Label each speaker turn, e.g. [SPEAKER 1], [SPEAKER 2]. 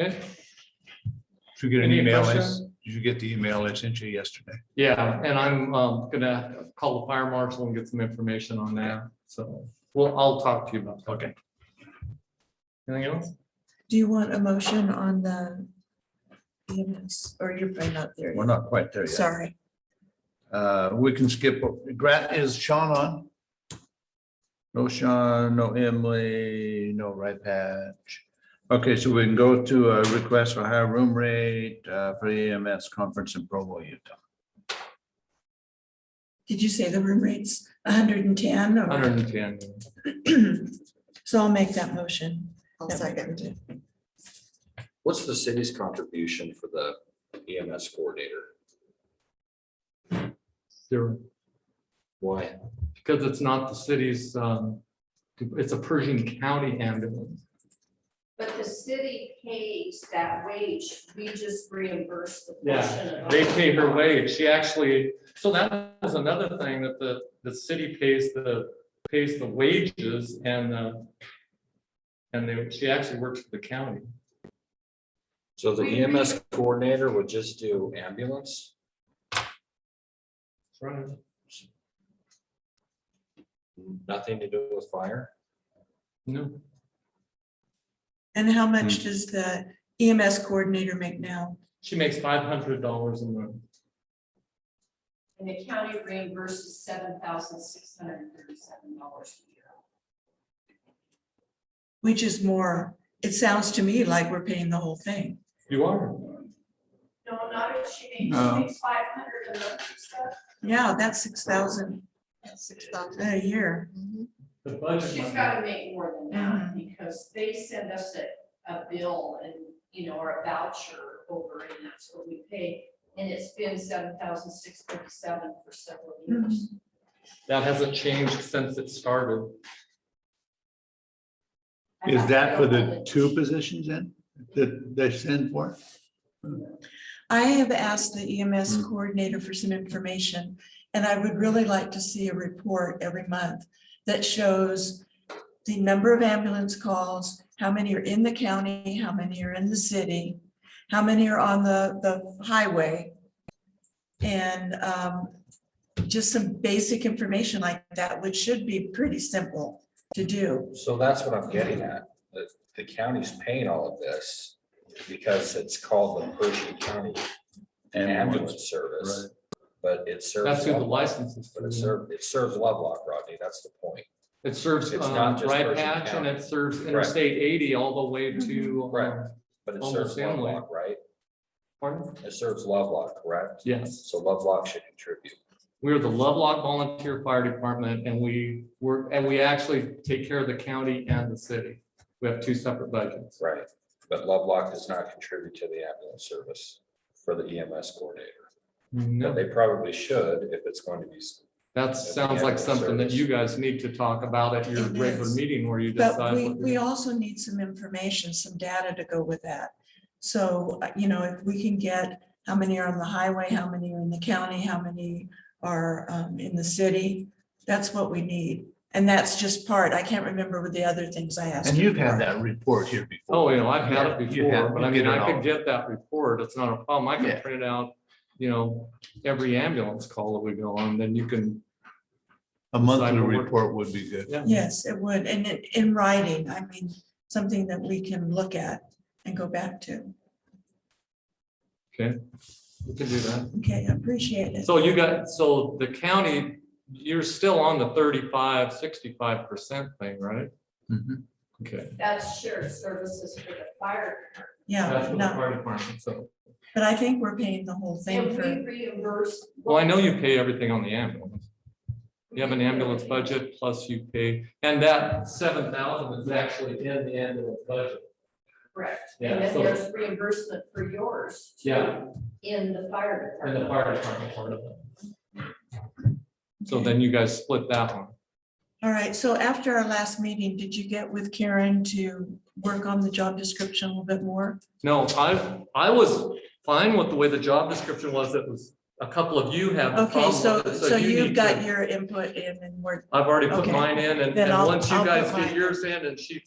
[SPEAKER 1] Okay,
[SPEAKER 2] Did you get an
[SPEAKER 1] Any
[SPEAKER 2] email?
[SPEAKER 1] questions?
[SPEAKER 2] Did you get the email I sent you yesterday?
[SPEAKER 1] yeah, and I'm um, gonna call the fire marshal and get some information on that, so, well, I'll talk to you about that.
[SPEAKER 2] Okay.
[SPEAKER 1] Anything else?
[SPEAKER 3] Do you want a motion on the EMS, or you're probably not there
[SPEAKER 2] We're
[SPEAKER 3] yet?
[SPEAKER 2] not quite there yet.
[SPEAKER 3] Sorry.
[SPEAKER 2] Uh, we can skip, Grant, is Sean on? No Sean, no Emily, no right patch. Okay, so we can go to a request for higher room rate uh, for EMS conference in Provo, Utah.
[SPEAKER 3] Did you say the room rate's hundred and ten?
[SPEAKER 1] Hundred and ten.
[SPEAKER 3] So I'll make that motion. I'll second.
[SPEAKER 4] What's the city's contribution for the EMS coordinator?
[SPEAKER 1] Zero.
[SPEAKER 4] Why?
[SPEAKER 1] Because it's not the city's, um, it's a Pershing County ambulance.
[SPEAKER 5] But the city pays that wage, we just reimburse the
[SPEAKER 1] Yeah,
[SPEAKER 5] portion of.
[SPEAKER 1] They pay her wage. She actually, so that was another thing that the, the city pays the, pays the wages and, uh, and they, she actually works for the county.
[SPEAKER 4] So the EMS coordinator would just do ambulance?
[SPEAKER 1] Right.
[SPEAKER 4] Nothing to do with fire?
[SPEAKER 1] No,
[SPEAKER 3] And how
[SPEAKER 2] Hmm.
[SPEAKER 3] much does the EMS coordinator make now?
[SPEAKER 1] she makes five hundred dollars a month.
[SPEAKER 5] And the county reimburses seven thousand six hundred and thirty-seven dollars a year.
[SPEAKER 3] Which is more, it sounds to me like we're paying the whole thing.
[SPEAKER 1] You are.
[SPEAKER 5] No, not if she makes,
[SPEAKER 2] No.
[SPEAKER 5] she makes five hundred and other stuff.
[SPEAKER 3] Yeah, that's six thousand
[SPEAKER 6] Six thousand.
[SPEAKER 3] a year.
[SPEAKER 1] The budget.
[SPEAKER 5] She's gotta make more than that,
[SPEAKER 2] Mm-hmm.
[SPEAKER 5] because they send us a, a bill and, you know, or a voucher over, and that's what we pay. And it's been seven thousand six thirty-seven for several years.
[SPEAKER 2] Mm-hmm.
[SPEAKER 1] That hasn't changed since it started.
[SPEAKER 5] I
[SPEAKER 2] Is
[SPEAKER 5] have to
[SPEAKER 2] that for
[SPEAKER 5] go
[SPEAKER 2] the
[SPEAKER 5] on
[SPEAKER 2] two positions then, that they send for?
[SPEAKER 3] I have asked the EMS
[SPEAKER 2] Hmm.
[SPEAKER 3] coordinator for some information, and I would really like to see a report every month that shows the number of ambulance calls, how many are in the county, how many are in the city, how many are on the, the highway. And um, just some basic information like that, which should be pretty simple to do.
[SPEAKER 4] So that's what I'm getting at. The, the county's paying all of this because it's called the Pershing County Ambulance Service. But it
[SPEAKER 1] That's
[SPEAKER 4] serves,
[SPEAKER 1] who the
[SPEAKER 4] Lovelock,
[SPEAKER 1] license is.
[SPEAKER 4] but it
[SPEAKER 1] for.
[SPEAKER 4] serves, it serves Lovelock, Rodney. That's the point.
[SPEAKER 1] It serves
[SPEAKER 4] It's not
[SPEAKER 1] um,
[SPEAKER 4] just
[SPEAKER 1] Bright
[SPEAKER 4] Pershing
[SPEAKER 1] Patch and
[SPEAKER 4] County.
[SPEAKER 1] it serves
[SPEAKER 4] Correct.
[SPEAKER 1] Interstate eighty all the way to. um,
[SPEAKER 4] Correct. But it serves
[SPEAKER 1] Almost family.
[SPEAKER 4] Lovelock, right?
[SPEAKER 1] Pardon?
[SPEAKER 4] It serves Lovelock, correct?
[SPEAKER 1] Yes.
[SPEAKER 4] So Lovelock should contribute.
[SPEAKER 1] We are the Lovelock Volunteer Fire Department and we work, and we actually take care of the county and the city. We have two separate budgets.
[SPEAKER 4] Right, but Lovelock does not contribute to the ambulance service for the EMS coordinator. But
[SPEAKER 1] No,
[SPEAKER 4] They probably should if it's going to be,
[SPEAKER 1] that sounds like something that you guys need to talk about at your
[SPEAKER 3] It
[SPEAKER 1] regular
[SPEAKER 3] is.
[SPEAKER 1] meeting where you
[SPEAKER 3] But
[SPEAKER 1] decide.
[SPEAKER 3] we,
[SPEAKER 1] what
[SPEAKER 3] we
[SPEAKER 1] you're-
[SPEAKER 3] also need some information, some data to go with that. So, uh, you know, if we can get how many are on the highway, how many are in the county, how many are um, in the city, that's what we need. And that's just part, I can't remember what the other things I asked.
[SPEAKER 2] And
[SPEAKER 3] her
[SPEAKER 2] you've had
[SPEAKER 3] for.
[SPEAKER 2] that report here before.
[SPEAKER 1] Oh, you know, I've had it
[SPEAKER 2] Yeah, you have.
[SPEAKER 1] before, but I
[SPEAKER 2] You get
[SPEAKER 1] mean,
[SPEAKER 2] it
[SPEAKER 1] I
[SPEAKER 2] all.
[SPEAKER 1] could get that report. It's not a problem. I
[SPEAKER 2] Yeah.
[SPEAKER 1] can print it out, you know, every ambulance call that we go on, then you can.
[SPEAKER 2] A monthly
[SPEAKER 1] Cyber work.
[SPEAKER 2] report would be good.
[SPEAKER 3] Yes, it would, and it- in writing, I mean, something that we can look at and go back to.
[SPEAKER 1] You can do that.
[SPEAKER 3] Okay, I appreciate it.
[SPEAKER 1] So you got, so the county, you're still on the 35, 65 percent thing, right?
[SPEAKER 2] Mhm.
[SPEAKER 1] Okay.
[SPEAKER 5] That's shared services for the fire.
[SPEAKER 3] Yeah,
[SPEAKER 1] That's what the
[SPEAKER 3] no,
[SPEAKER 1] fire department, so.
[SPEAKER 3] but I think we're paying the whole thing
[SPEAKER 5] And we
[SPEAKER 3] for,
[SPEAKER 5] reimburse.
[SPEAKER 1] Well, I know you pay everything on the ambulance. You have an ambulance budget plus you pay, and that seven thousand is actually in the ambulance budget.
[SPEAKER 5] Correct.
[SPEAKER 1] Yeah,
[SPEAKER 5] And then
[SPEAKER 1] so-
[SPEAKER 5] there's reimbursement for yours. too,
[SPEAKER 1] Yeah.
[SPEAKER 5] In the fire
[SPEAKER 1] And the
[SPEAKER 5] department.
[SPEAKER 1] fire department part of it. So then you guys split that one.
[SPEAKER 3] all right, so after our last meeting, did you get with Karen to work on the job description a little bit more?
[SPEAKER 1] No, I, I was fine with the way the job description was. It was, a couple of you have. a
[SPEAKER 3] Okay,
[SPEAKER 1] problem
[SPEAKER 3] so,
[SPEAKER 1] with it,
[SPEAKER 3] so
[SPEAKER 1] you
[SPEAKER 3] you've
[SPEAKER 1] need
[SPEAKER 3] got
[SPEAKER 1] to-
[SPEAKER 3] your input in and we're
[SPEAKER 1] I've already put
[SPEAKER 3] Okay.
[SPEAKER 1] mine in and,
[SPEAKER 3] Then
[SPEAKER 1] and
[SPEAKER 3] I'll-
[SPEAKER 1] once you
[SPEAKER 3] I'll put
[SPEAKER 1] guys
[SPEAKER 3] mine
[SPEAKER 1] get
[SPEAKER 3] in.
[SPEAKER 1] yours in and she